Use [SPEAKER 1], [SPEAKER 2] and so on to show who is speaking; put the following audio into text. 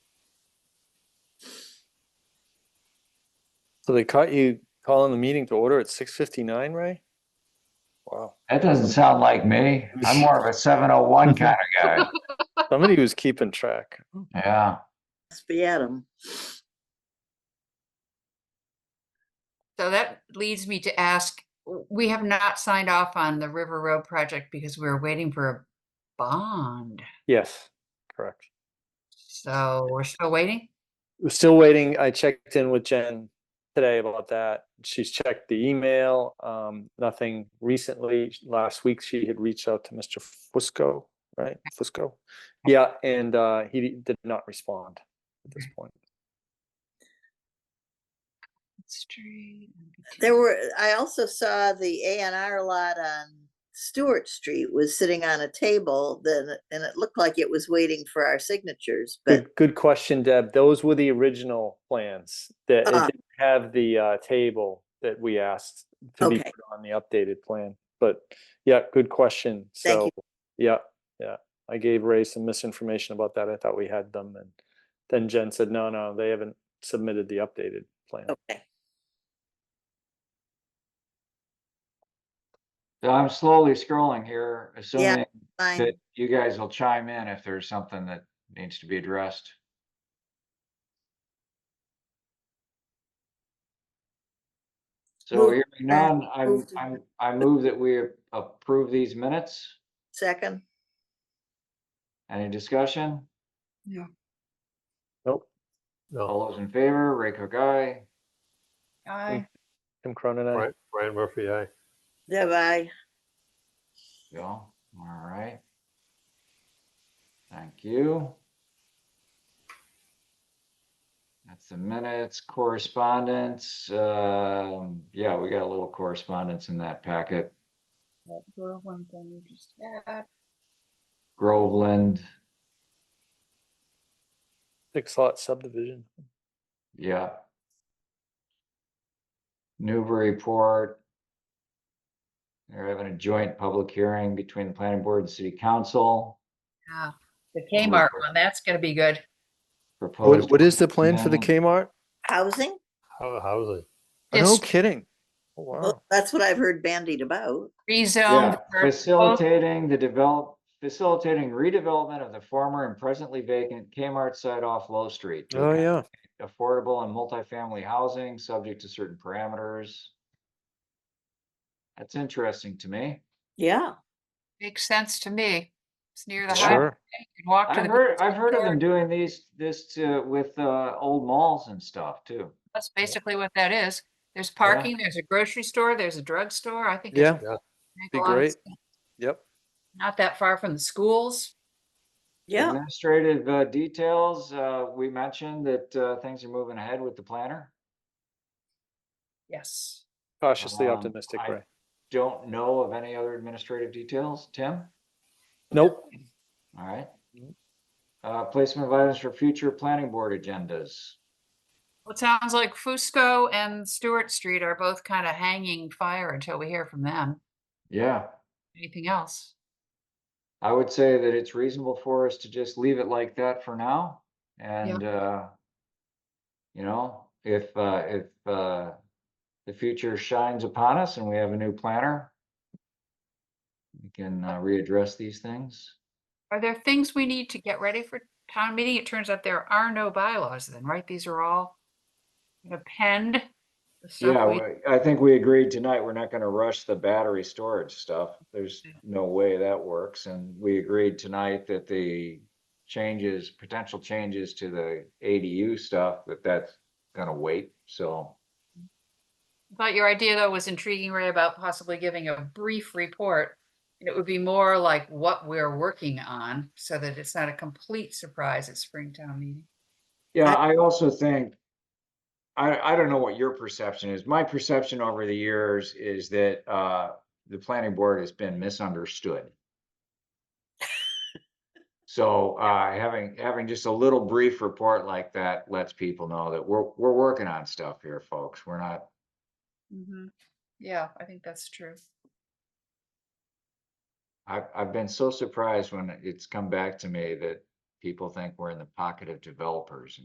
[SPEAKER 1] So they caught you calling the meeting to order at six fifty-nine, Ray? Wow,
[SPEAKER 2] That doesn't sound like me. I'm more of a 701 kind of guy.
[SPEAKER 1] somebody was keeping track.
[SPEAKER 2] Yeah.
[SPEAKER 3] Must be Adam.
[SPEAKER 4] So that leads me to ask, w- we have not signed off on the River Road project because we were waiting for a bond.
[SPEAKER 1] Yes, correct.
[SPEAKER 4] So we're still waiting?
[SPEAKER 1] We're still waiting. I checked in with Jen today about that. She's checked the email, um, nothing recently. Last week, she had reached out to Mr. Fusco, right? Fusco? Yeah, and, uh, he did not respond at this point.
[SPEAKER 4] Street, MBTA.
[SPEAKER 3] There were, I also saw the A and R lot on Stewart Street was sitting on a table then, and it looked like it was waiting for our signatures, but
[SPEAKER 1] Good, good question, Deb. Those were the original plans that it
[SPEAKER 3] Ah.
[SPEAKER 1] didn't have the uh, table that we asked to be
[SPEAKER 3] Okay.
[SPEAKER 1] put on the updated plan. But yeah, good question.
[SPEAKER 3] Thank
[SPEAKER 1] So,
[SPEAKER 3] you.
[SPEAKER 1] yeah, yeah. I gave Ray some misinformation about that. I thought we had them and then Jen said, no, no, they haven't submitted the updated plan.
[SPEAKER 3] okay.
[SPEAKER 2] So I'm slowly scrolling here, assuming
[SPEAKER 3] Fine.
[SPEAKER 2] that you guys will chime in if there's something that needs to be addressed. So
[SPEAKER 3] Move-
[SPEAKER 2] hearing none, I'm,
[SPEAKER 3] move to-
[SPEAKER 2] I'm, I move that we approve these minutes.
[SPEAKER 3] Second,
[SPEAKER 2] Any discussion?
[SPEAKER 1] Nope.
[SPEAKER 2] All those in favor, Ray Cook, aye.
[SPEAKER 4] Aye.
[SPEAKER 1] Tim Cronin, aye.
[SPEAKER 5] Right, Brian Murphy, aye.
[SPEAKER 3] Deb, I,
[SPEAKER 2] Bill, all right. Thank you. That's the minutes, correspondence. Um, yeah, we got a little correspondence in that packet. Groveland,
[SPEAKER 1] six lot subdivision.
[SPEAKER 2] yeah. Newburyport. They're having a joint public hearing between the planning board and city council.
[SPEAKER 4] Yeah, The Kmart one, that's gonna be good.
[SPEAKER 2] Proposed- Yeah.
[SPEAKER 1] Kmart?
[SPEAKER 3] housing?
[SPEAKER 5] How, housing.
[SPEAKER 1] No
[SPEAKER 4] Just
[SPEAKER 1] kidding. Oh,
[SPEAKER 3] Well,
[SPEAKER 1] Wow.
[SPEAKER 3] that's what I've heard bandied about.
[SPEAKER 4] rezone.
[SPEAKER 2] Yeah,
[SPEAKER 4] for both-
[SPEAKER 2] facilitating the develop, facilitating redevelopment of the former and presently vacant Kmart site off Low Street. to
[SPEAKER 1] Oh, yeah.
[SPEAKER 2] accommodate Affordable and multifamily housing, subject to certain parameters. That's interesting to me.
[SPEAKER 3] Yeah.
[SPEAKER 4] Makes sense to me. It's near the
[SPEAKER 2] Yeah.
[SPEAKER 4] highway.
[SPEAKER 1] Sure.
[SPEAKER 4] You can walk to
[SPEAKER 2] I've
[SPEAKER 4] the,
[SPEAKER 2] heard, I've heard of
[SPEAKER 4] store.
[SPEAKER 2] them doing these, this uh, with uh, old malls and stuff too.
[SPEAKER 4] that's basically what that is. There's parking, there's a grocery store, there's a drugstore. I think. it
[SPEAKER 1] Yeah,
[SPEAKER 4] would make a
[SPEAKER 1] be
[SPEAKER 4] lot of
[SPEAKER 1] great.
[SPEAKER 4] sense.
[SPEAKER 1] Yep.
[SPEAKER 4] Not that far from the schools.
[SPEAKER 3] Yeah,
[SPEAKER 2] Administrative uh, details, uh, we mentioned that uh, things are moving ahead with the planner.
[SPEAKER 4] Yes.
[SPEAKER 1] Cautiously
[SPEAKER 2] Um,
[SPEAKER 1] optimistic,
[SPEAKER 2] I-
[SPEAKER 1] Ray.
[SPEAKER 2] Don't know of any other administrative details, Tim?
[SPEAKER 1] Nope.
[SPEAKER 2] All right.
[SPEAKER 1] Mhm.
[SPEAKER 2] Uh, placement of items for future planning board agendas.
[SPEAKER 4] Well, it sounds like Fusco and Stewart Street are both kind of hanging fire until we hear from them.
[SPEAKER 2] Yeah,
[SPEAKER 4] Anything else?
[SPEAKER 2] I would say that it's reasonable for us to just leave it like that for now and, uh, you know, if, uh, if, uh, the future shines upon us and we have a new planner, we can uh, readdress these things.
[SPEAKER 4] Are there things we need to get ready for town meeting? It turns out there are no bylaws then, right? These are all append.
[SPEAKER 2] Yeah, we- I think we agreed tonight, we're not gonna rush the battery storage stuff. There's
[SPEAKER 4] Yeah.
[SPEAKER 2] no way that works, and we agreed tonight that the changes, potential changes to the ADU stuff, that that's gonna wait, so.
[SPEAKER 4] But your idea though was intriguing, Ray, about possibly giving a brief report. And it would be more like what we're working on so that it's not a complete surprise at Springtown meeting.
[SPEAKER 2] Yeah, I also think, I, I don't know what your perception is. My perception over the years is that, uh, the planning board has been misunderstood. So, uh, having, having just a little brief report like that lets people know that we're, we're working on stuff here, folks. We're not,
[SPEAKER 4] Yeah, I think that's true.
[SPEAKER 2] I've, I've been so surprised when it's come back to me that people think we're in the pocket of developers